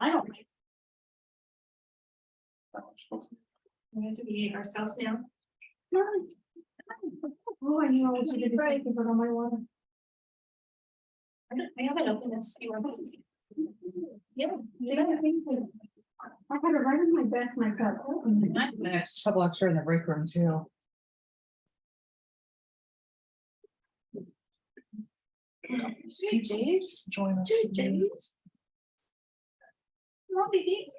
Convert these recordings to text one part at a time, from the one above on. I don't like. We have to be ourselves now. Oh, I knew I was gonna be right, but on my water. I don't- I have it open and see what. happens. Yeah. yeah, I think so. I had it right in my best, my cup. The next couple extra in the break room too. Two days, join us. Two days. Lovely days.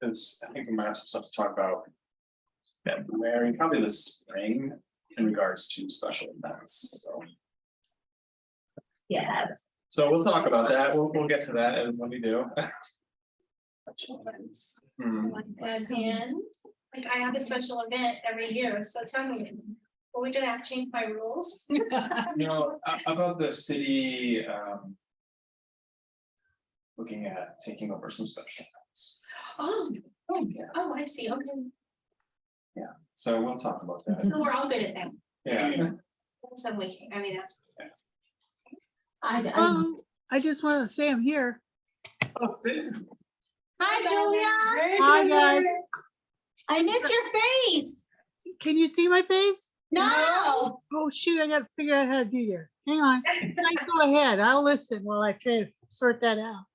Because I think we might have some stuff to talk about. February, probably the spring in regards to special events, so. Yes. So we'll talk about that, we'll, we'll get to that and when we do. Hmm, As in, like I have a special event every year, so tell me, are we gonna have to change my rules? You know, a- about the city, um. Looking at taking over some special events, Oh, oh, Yeah. oh, I see, okay, so we'll talk about that, so we're all good at that, Mm-hmm. yeah. in some way, I mean, that's. I, Um, Hello, Oh, I just want to say I'm here. Hi, Julia. Hi, guys. I miss your face. Can you see my face? No. Oh, shoot, I gotta figure out how to do there. Hang on. Guys, go ahead. I'll listen while I try to sort that out.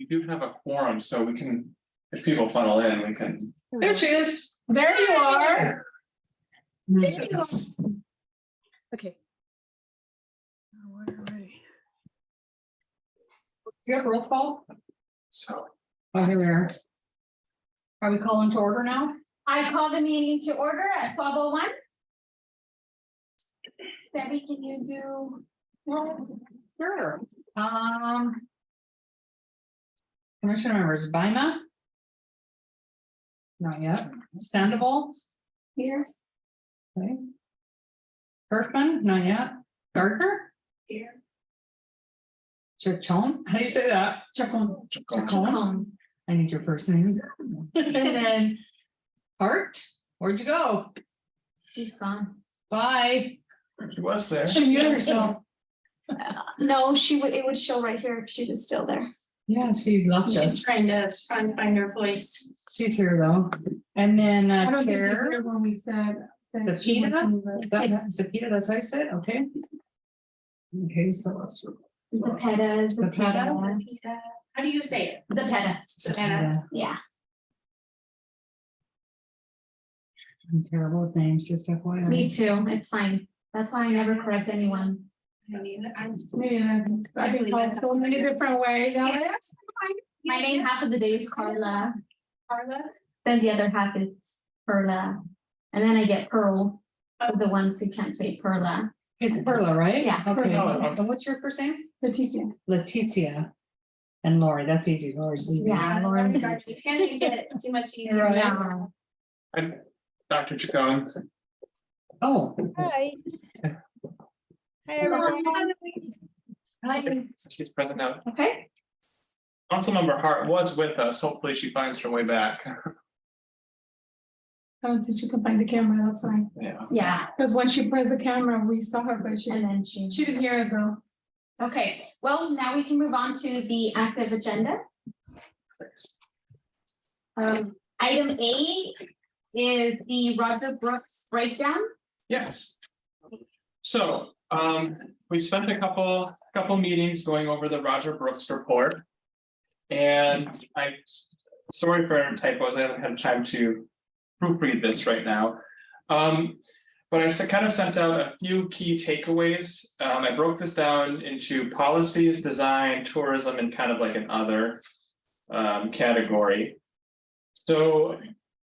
We do have a quorum, so we can, if people funnel in, we can. Here we There go. she is. There you are. Okay. Oh, we're ready. Do you have roll call? So, Oh, here we are. Are we calling to order now? I call the meeting to order at twelve oh one. Debbie, can you do? Sure. Um. Commission members, Bima? Not yet. Sandoval? Here. Okay. Berkman, not yet. Gardner? Here. Chacon, how do you say that? Chacon. Chacon. Um, Chacon. I need your first name. And then Hart, where'd you go? She's gone. Bye. she was there. She muted herself. No, she would, it would show right here if she was still there. Yeah, she left She's us. trying to find, find her voice. She's here though. And then I uh, don't think you Chair. heard when we said. that she Subpoena? wasn't the- Is that- That's a Peter, that's how you said, okay? Okay, so let's. The peta is the peta. How do you say it? The peta, Savannah. yeah. I'm terrible with names, just FYI. Me too, it's fine. That's why I never correct anyone. I mean, I'm- Yeah, I I believe can call that's- so many different ways. now. My name half of the day is Carla, Carla. then the other half is Perla. And then I get Pearl, for the ones who can't say Perla. It's Perla, right? Yeah. Okay, Perla. and what's your first name? Leticia, Letitia. And Lori, that's easy, Lori's easy. Yeah, Lauren. You can't even get it too much easier. Right. Yeah. And Dr. Chacon, Oh. Hi. Hi, everyone. she's present now. Okay. Councilmember Hart was with us. Hopefully she finds her way back. I don't think she could find the camera outside, Yeah. Yeah, because when she pressed the camera, we saw her, but she, and then she. she didn't hear us though. Okay, well, now we can move on to the active agenda. Um, item A is the Roger Brooks breakdown. Yes. So, um, we spent a couple, couple meetings going over the Roger Brooks report. And I, sorry for typos, I haven't had time to proofread this right now. Um, but I kind of sent out a few key takeaways. Um, I broke this down into policies, design, tourism, and kind of like an other um, category. So,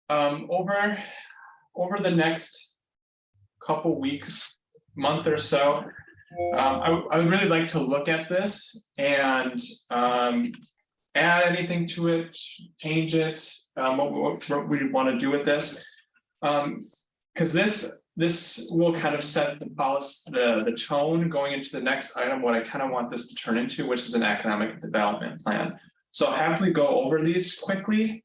um, over, over the next couple weeks, month or so. Um, I, I would really like to look at this and, um, add anything to it, change it, um, what, what, what we wanna do with this. Um, cause this, this will kind of set the policy, the, the tone going into the next item, what I kind of want this to turn into, which is an economic development plan. So I'll happily go over these quickly,